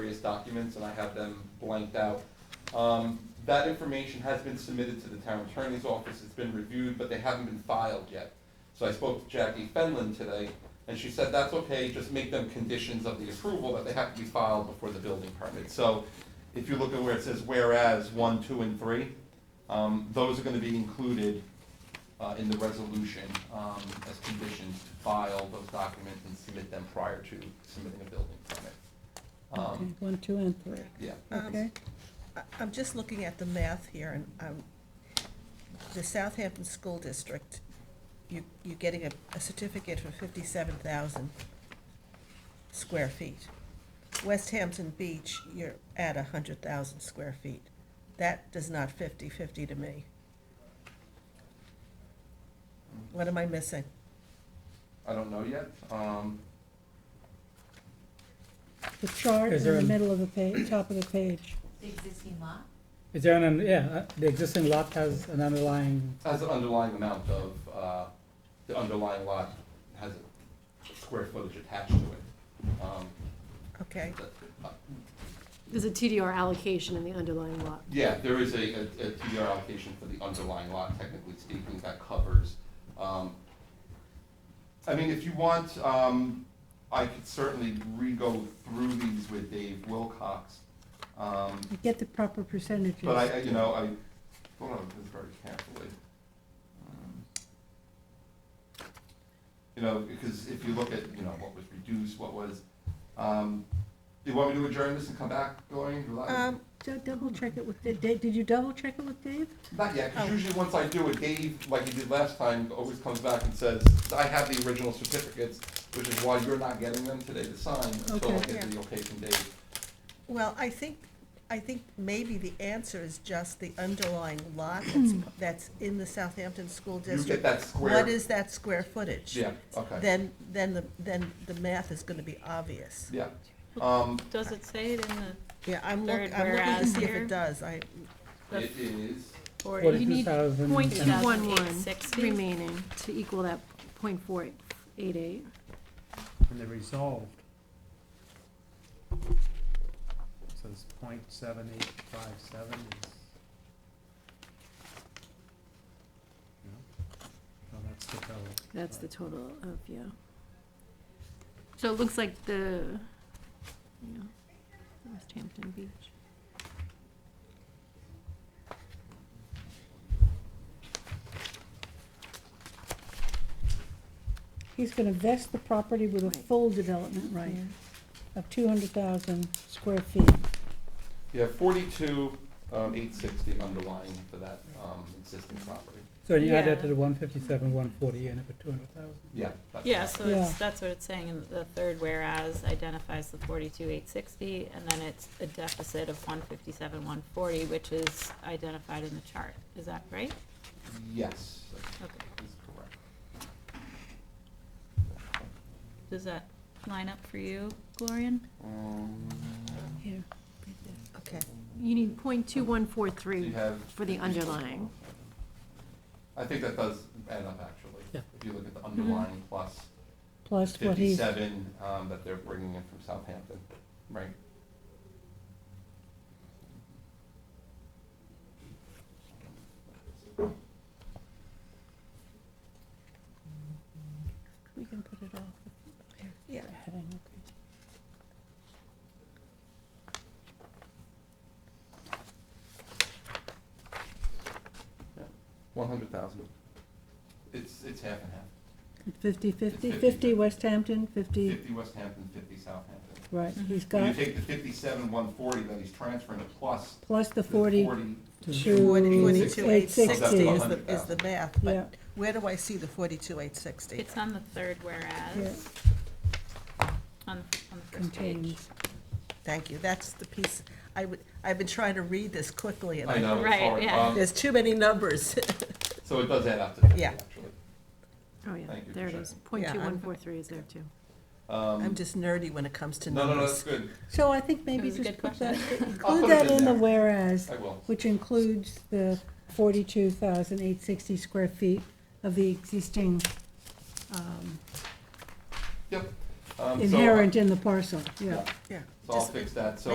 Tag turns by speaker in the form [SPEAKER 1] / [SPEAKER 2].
[SPEAKER 1] various documents, and I have them blanked out. Um, That information has been submitted to the town attorney's office, it's been reviewed, but they haven't been filed yet. So I spoke to Jackie Fenlon today, and she said that's okay, just make them conditions of the approval, that they have to be filed before the building permit. So if you look at where it says whereas one, two, and three, um, those are gonna be included uh, in the resolution um, as conditions to file those documents and submit them prior to submitting a building permit.
[SPEAKER 2] Okay,
[SPEAKER 1] Um,
[SPEAKER 2] One, two, and three,
[SPEAKER 1] Yeah,
[SPEAKER 3] Um,
[SPEAKER 2] okay?
[SPEAKER 3] I- I'm just looking at the math here, and um, the Southampton School District, you, you're getting a, a certificate for fifty-seven thousand square feet. West Hampton Beach, you're at a hundred thousand square feet. That does not fifty-fifty to me. What am I missing?
[SPEAKER 1] I don't know yet. Um,
[SPEAKER 2] The chart in
[SPEAKER 4] Is there
[SPEAKER 2] the
[SPEAKER 4] an-
[SPEAKER 2] middle of the page, top of the page.
[SPEAKER 5] The existing lot?
[SPEAKER 4] Is there an, yeah, uh, the existing lot has an underlying,
[SPEAKER 1] Has an underlying amount of, uh, the underlying lot has a square footage attached to it. Um,
[SPEAKER 3] Okay,
[SPEAKER 1] but, uh,
[SPEAKER 6] There's a TDR allocation in the underlying lot.
[SPEAKER 1] Yeah, there is a, a a TDR allocation for the underlying lot, technically speaking, that covers. um, I mean, if you want, um, I could certainly re-go through these with Dave Wilcox. um,
[SPEAKER 2] You Get the proper percentages.
[SPEAKER 1] But I, I- you know, I thought of this very carefully. Um, You know, because if you look at, you know, what was reduced, what was, um, do you want me to adjourn this and come back, Gloria? Would you like-
[SPEAKER 3] um,
[SPEAKER 2] So double check it with, Dave, did you double check it with Dave?
[SPEAKER 1] Not yet, because
[SPEAKER 3] Oh.
[SPEAKER 1] usually once I do it, Dave, like he did last time, always comes back and says, I have the original certificates, which is why you're not getting them today to sign until I
[SPEAKER 2] Okay.
[SPEAKER 1] get the okay from Dave.
[SPEAKER 3] Well, I think, I think maybe the answer is just the underlying lot that's, that's in the Southampton School
[SPEAKER 1] You get
[SPEAKER 3] District.
[SPEAKER 1] that square.
[SPEAKER 3] What is that square footage?
[SPEAKER 1] Yeah, okay,
[SPEAKER 3] Then, then the, then the math is gonna be obvious.
[SPEAKER 1] yeah. Um,
[SPEAKER 7] Does it say it in
[SPEAKER 3] Yeah, I'm look,
[SPEAKER 7] Third
[SPEAKER 3] I'm looking to
[SPEAKER 7] whereas
[SPEAKER 3] see if
[SPEAKER 7] here.
[SPEAKER 3] it does, I,
[SPEAKER 1] it is,
[SPEAKER 7] the, or
[SPEAKER 4] What
[SPEAKER 7] you
[SPEAKER 4] is-
[SPEAKER 7] need
[SPEAKER 4] 2,000
[SPEAKER 7] point two one one
[SPEAKER 6] 211
[SPEAKER 7] sixty?
[SPEAKER 6] remaining to equal that point four eight eight.
[SPEAKER 8] and they're resolved. Says point seven eight five seven is. No, no, that's the total.
[SPEAKER 6] That's the total of, yeah. So it looks like the, yeah, West Hampton Beach.
[SPEAKER 2] He's gonna vest the property with a
[SPEAKER 6] Right.
[SPEAKER 2] full development right
[SPEAKER 6] Yeah.
[SPEAKER 2] of two hundred thousand square feet.
[SPEAKER 1] yeah, forty-two, um, eight sixty underlying for that, um, existing property.
[SPEAKER 4] so you add that to
[SPEAKER 7] Yeah.
[SPEAKER 4] the one fifty-seven, one forty, and if it two hundred thousand.
[SPEAKER 1] Yeah. that's-
[SPEAKER 7] Yeah, so it's,
[SPEAKER 2] Yeah.
[SPEAKER 7] that's what it's saying in the third whereas identifies the forty-two eight sixty, and then it's a deficit of one fifty-seven one forty, which is identified in the chart. Is that right?
[SPEAKER 1] Yes,
[SPEAKER 7] Okay.
[SPEAKER 1] that is correct.
[SPEAKER 7] Does that line up for you, Glorian?
[SPEAKER 1] Um,
[SPEAKER 6] Here.
[SPEAKER 3] okay.
[SPEAKER 6] You need point two one four
[SPEAKER 1] so you
[SPEAKER 6] three
[SPEAKER 1] have-
[SPEAKER 6] for the underlying.
[SPEAKER 1] I think that does add up, actually.
[SPEAKER 4] Yeah.
[SPEAKER 1] If you look at the
[SPEAKER 6] Mm-hmm.
[SPEAKER 1] underlying plus
[SPEAKER 2] Plus what he's,
[SPEAKER 1] fifty-seven, um, that they're bringing in from Southampton, right?
[SPEAKER 2] we can put it off.
[SPEAKER 3] Yeah.
[SPEAKER 2] Heading, okay.
[SPEAKER 1] One hundred thousand. It's, it's half and half.
[SPEAKER 2] Fifty,
[SPEAKER 1] 50.
[SPEAKER 2] fifty, fifty West Hampton, fifty,
[SPEAKER 1] Fifty West Hampton, fifty Southampton.
[SPEAKER 2] right, he's
[SPEAKER 1] When you
[SPEAKER 2] got,
[SPEAKER 1] take the fifty-seven, one forty that he's transferring plus
[SPEAKER 2] plus the
[SPEAKER 1] the
[SPEAKER 2] forty,
[SPEAKER 1] forty.
[SPEAKER 2] Two,
[SPEAKER 3] Forty-two, eight sixty is the,
[SPEAKER 1] 860.
[SPEAKER 3] is the math,
[SPEAKER 2] yeah,
[SPEAKER 3] but where do I see the forty-two, eight sixty?
[SPEAKER 7] It's on the third
[SPEAKER 2] yeah,
[SPEAKER 7] whereas, on, the- on the first page.
[SPEAKER 2] contains.
[SPEAKER 3] Thank you, that's the piece, I would, I've been trying to read this quickly, and
[SPEAKER 1] I know, it's
[SPEAKER 7] Right,
[SPEAKER 1] hard.
[SPEAKER 7] yeah.
[SPEAKER 1] Um,
[SPEAKER 3] there's too many numbers.
[SPEAKER 1] So it does add up to fifty,
[SPEAKER 3] Yeah.
[SPEAKER 1] actually.
[SPEAKER 6] Oh, yeah,
[SPEAKER 1] Thank you for
[SPEAKER 6] there it is.
[SPEAKER 1] checking.
[SPEAKER 6] Point
[SPEAKER 3] Yeah,
[SPEAKER 6] two
[SPEAKER 3] I'm-
[SPEAKER 6] one four three is there too.
[SPEAKER 3] I'm just nerdy when it comes to
[SPEAKER 1] Um, No,
[SPEAKER 3] numbers.
[SPEAKER 1] no, no, that's good.
[SPEAKER 2] So I think maybe
[SPEAKER 7] was a
[SPEAKER 2] just
[SPEAKER 7] good
[SPEAKER 2] put that,
[SPEAKER 7] question.
[SPEAKER 1] I'll put
[SPEAKER 2] include
[SPEAKER 1] it
[SPEAKER 2] that
[SPEAKER 1] in
[SPEAKER 2] in the
[SPEAKER 1] there.
[SPEAKER 2] whereas,
[SPEAKER 1] I will.
[SPEAKER 2] which includes the forty-two thousand eight sixty square feet of the existing, um,
[SPEAKER 1] Yep. Um, so- Um,
[SPEAKER 2] inherent in the parcel, yeah.
[SPEAKER 3] Yeah.
[SPEAKER 1] So I'll
[SPEAKER 3] Just-
[SPEAKER 1] fix that. So